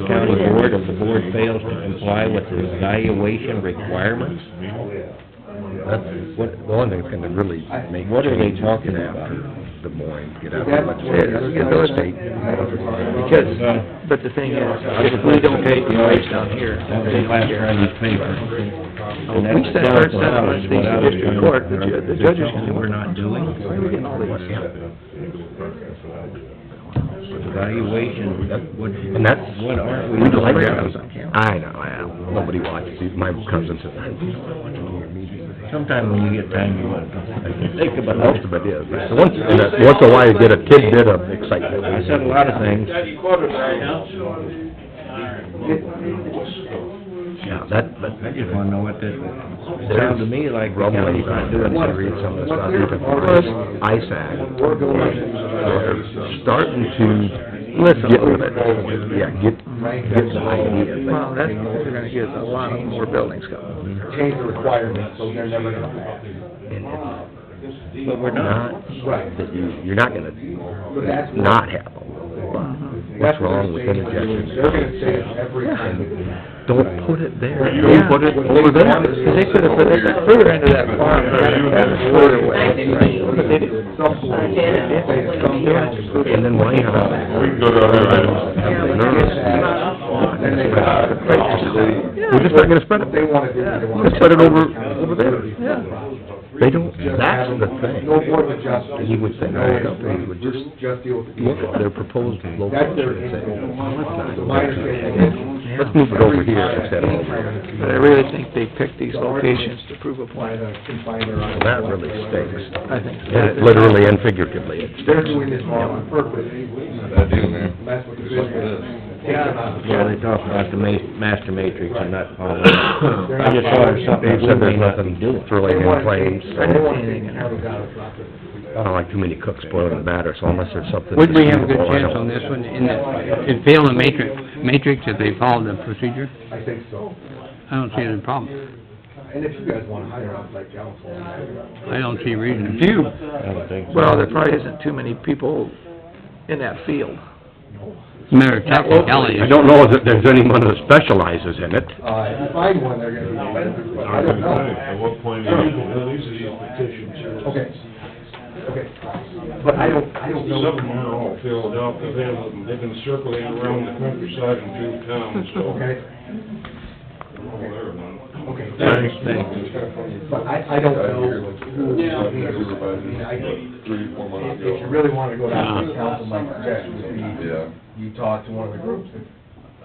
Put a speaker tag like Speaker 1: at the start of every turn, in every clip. Speaker 1: the board, if the board fails to comply with the evaluation requirements,
Speaker 2: That's what, the only thing that's gonna really make
Speaker 1: What are they
Speaker 2: changes
Speaker 1: talking
Speaker 2: is
Speaker 1: about?
Speaker 2: after Des Moines, get out
Speaker 3: That's
Speaker 2: of much
Speaker 3: where the other
Speaker 2: is real estate.
Speaker 3: Because,
Speaker 4: But the thing is, if we don't pay the wage down here,
Speaker 1: that
Speaker 4: they
Speaker 1: was
Speaker 4: don't
Speaker 1: last
Speaker 4: care.
Speaker 1: time you paper.
Speaker 4: If we start start setting with these district court, the ju- the judge is gonna.
Speaker 1: We're not doing.
Speaker 4: Why are we getting all these?
Speaker 1: Evaluation, that- what,
Speaker 2: And that's,
Speaker 1: what aren't we?
Speaker 2: we don't like
Speaker 1: doing?
Speaker 2: that. I know, I know. Nobody watches these. My cousin says, I don't watch meetings.
Speaker 1: Sometime when you get time, you want to think about it.
Speaker 2: Most of it is. So Once, and that- once in a while you get a tidbit of excitement.
Speaker 1: I said a lot of things.
Speaker 2: Yeah, that, that.
Speaker 1: I just wanna know what this, it sounded to me like the
Speaker 2: Rumbling,
Speaker 1: county's not
Speaker 2: I
Speaker 1: doing
Speaker 2: didn't
Speaker 1: it.
Speaker 2: read some of the
Speaker 3: What
Speaker 2: stuff,
Speaker 3: they're-
Speaker 2: even Chris ISAC, they're starting to
Speaker 4: Listen.
Speaker 2: get with it. Yeah, get, get the idea.
Speaker 4: Well, that's what we're gonna get, a lot of more buildings coming.
Speaker 3: change the requirements, so they're never gonna pass.
Speaker 2: And it's
Speaker 1: But we're not.
Speaker 2: not,
Speaker 3: Right.
Speaker 2: that you, you're not gonna
Speaker 3: But that's. Uh-huh.
Speaker 2: not have them. What's wrong with interjection?
Speaker 3: They're gonna say it every time. we do that.
Speaker 2: Don't put it there,
Speaker 5: Right.
Speaker 2: don't put it over
Speaker 4: Cause they
Speaker 2: there.
Speaker 4: could've put it further into that farm, rather further away. But they didn't.
Speaker 3: Some boards say it's some boards.
Speaker 2: And then why, uh,
Speaker 5: We can go to other items.
Speaker 2: have the
Speaker 3: Get
Speaker 2: nerves?
Speaker 3: that, Then they got it.
Speaker 2: We're just not gonna spread
Speaker 3: What they
Speaker 2: it.
Speaker 3: wanna do, they wanna.
Speaker 2: Just spread it over, over there. They don't, that's the
Speaker 3: No
Speaker 2: thing.
Speaker 3: board of adjustment.
Speaker 2: You would think,
Speaker 3: No,
Speaker 2: right,
Speaker 3: nothing.
Speaker 2: they would just
Speaker 3: Just deal with the people.
Speaker 2: Look at their proposed location
Speaker 3: That's their
Speaker 2: and say,
Speaker 3: end goal.
Speaker 2: "Well, let's not
Speaker 3: My
Speaker 2: go
Speaker 3: understanding
Speaker 2: there. Let's move it over here instead of over here.
Speaker 4: But I really think they picked these locations to prove a
Speaker 3: Why
Speaker 4: point.
Speaker 3: the confiner on.
Speaker 2: Well, that really stinks.
Speaker 4: I think. so.
Speaker 2: And it Literally and figuratively, it
Speaker 3: They're
Speaker 2: stinks.
Speaker 3: doing this all on purpose.
Speaker 5: I do, man.
Speaker 3: That's what the business.
Speaker 1: Yeah, they talk about the ma- master matrix and not following. it. I just saw there's something
Speaker 2: Dave
Speaker 1: we
Speaker 2: said
Speaker 1: may
Speaker 2: there's
Speaker 1: not be
Speaker 2: nothing
Speaker 1: doing.
Speaker 2: thrilling in claims.
Speaker 3: I don't want anything in our.
Speaker 2: I don't like too many cooks boiling the batter, so unless there's something.
Speaker 6: Would we have a good
Speaker 2: disputable, I
Speaker 6: chance
Speaker 2: don't-
Speaker 6: on this one, in that, in fail the matrix, matrix, if they follow the procedure?
Speaker 3: I think so.
Speaker 6: I don't see any problem.
Speaker 3: And if you guys wanna hire out like council.
Speaker 6: I don't see reason to.
Speaker 1: I don't think so.
Speaker 4: Well, there probably isn't too many people in that field.
Speaker 6: Matter of technicality.
Speaker 2: I don't know that there's anyone that specializes in it.
Speaker 3: Uh, if you find one, they're gonna be, but I don't know.
Speaker 5: At what point do you...
Speaker 3: Okay, okay. But I don't, I don't know.
Speaker 7: Somewhere all filled up, they've been, they've been circling around the countryside and through town, so.
Speaker 3: Okay,
Speaker 7: Whatever, man.
Speaker 3: okay.
Speaker 1: Thanks, thanks.
Speaker 3: But I, I don't know who, I mean, I,
Speaker 5: Three, four months
Speaker 3: if you
Speaker 5: ago.
Speaker 3: really wanna go down to the council, my suggestion would be,
Speaker 5: Yeah.
Speaker 3: you talk to one of the groups that,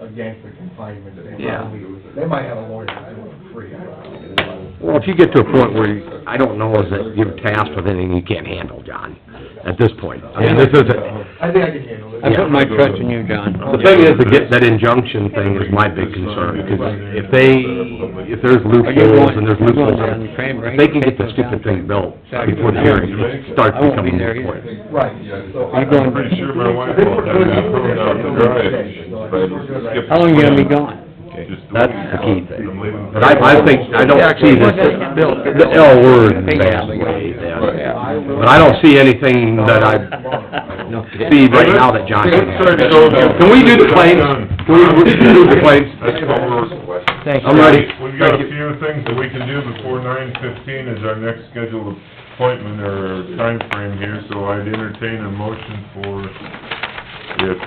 Speaker 3: against the confinement, they
Speaker 4: Yeah.
Speaker 3: probably, they might have a lawyer that's doing it free. I don't know.
Speaker 2: Well, if you get to a point where, you- I don't know is that you're tasked with anything you can't handle, John, at this point. I mean, this is, a-
Speaker 3: I think I can handle it.
Speaker 6: I put my trust in you, John.
Speaker 2: the thing is, to get that injunction thing is my big concern, because if they, if there's
Speaker 6: Are you
Speaker 2: loopholes
Speaker 6: going,
Speaker 2: and
Speaker 6: you
Speaker 2: there's
Speaker 6: going
Speaker 2: loopholes,
Speaker 6: down the
Speaker 2: in-
Speaker 6: Cranberry?
Speaker 2: if they can get the stupid thing built before the hearing, it starts
Speaker 6: I won't be
Speaker 2: becoming
Speaker 6: there
Speaker 2: a point.
Speaker 3: Right, so. I-
Speaker 6: You going-
Speaker 5: I'm pretty sure my wife will have that thrown out the drive, but it's skipped.
Speaker 6: How long you gonna be gone?
Speaker 5: Just
Speaker 2: That's the key thing.
Speaker 5: I'm leaving.
Speaker 2: But I, I think, I don't see this, the L word in a bad way, then. But I don't see anything that I see right now that John can
Speaker 5: Sorry to
Speaker 2: have.
Speaker 5: go.
Speaker 2: Can we do the claims? Can we, we can do the claims?
Speaker 5: That's what we're...
Speaker 4: Thank you.
Speaker 2: I'm ready.
Speaker 5: We've got
Speaker 2: Thank
Speaker 5: a
Speaker 2: you.
Speaker 5: few things that we can do before nine fifteen is our next scheduled appointment or time frame here, so I'd entertain a motion for if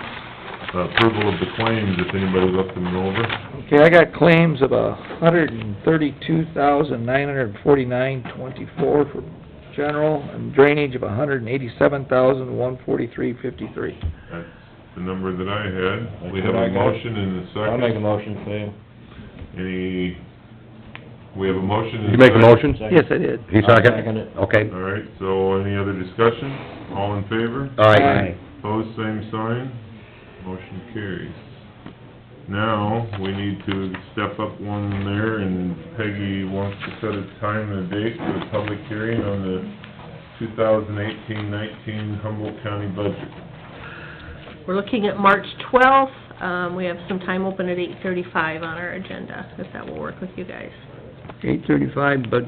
Speaker 5: uh, approval of the claims, if anybody left them over.
Speaker 4: Okay, I got claims of a hundred and thirty-two thousand, nine hundred and forty-nine, twenty-four for general, and drainage of a hundred and eighty-seven thousand, one forty-three, fifty-three.
Speaker 5: That's the number that I had. We
Speaker 1: That's
Speaker 5: have
Speaker 1: what
Speaker 5: a
Speaker 1: I got.
Speaker 5: motion and a
Speaker 1: I'll make a
Speaker 5: second.
Speaker 1: motion, Sam.
Speaker 5: Any, we have a motion and a second.
Speaker 2: You make a motion?
Speaker 4: Yes, I did.
Speaker 2: You
Speaker 1: Second it.
Speaker 2: second? Okay.
Speaker 5: All right, so any other discussion? All in favor?
Speaker 2: All right.
Speaker 5: Pose same sign, motion carries. Now, we need to step up one there, and Peggy wants to set a time and a date for the public hearing on the 2018-19 Humboldt County budget.
Speaker 8: We're looking at March twelfth, um, we have some time open at eight thirty-five on our agenda, if that will work with you guys.
Speaker 6: Eight thirty-five, but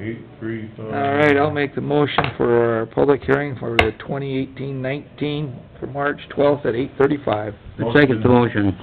Speaker 5: Eight, three, five...
Speaker 4: All right, I'll make the motion for our public hearing for the twenty eighteen nineteen, for March twelfth at eight thirty-five.
Speaker 6: the second's the motion.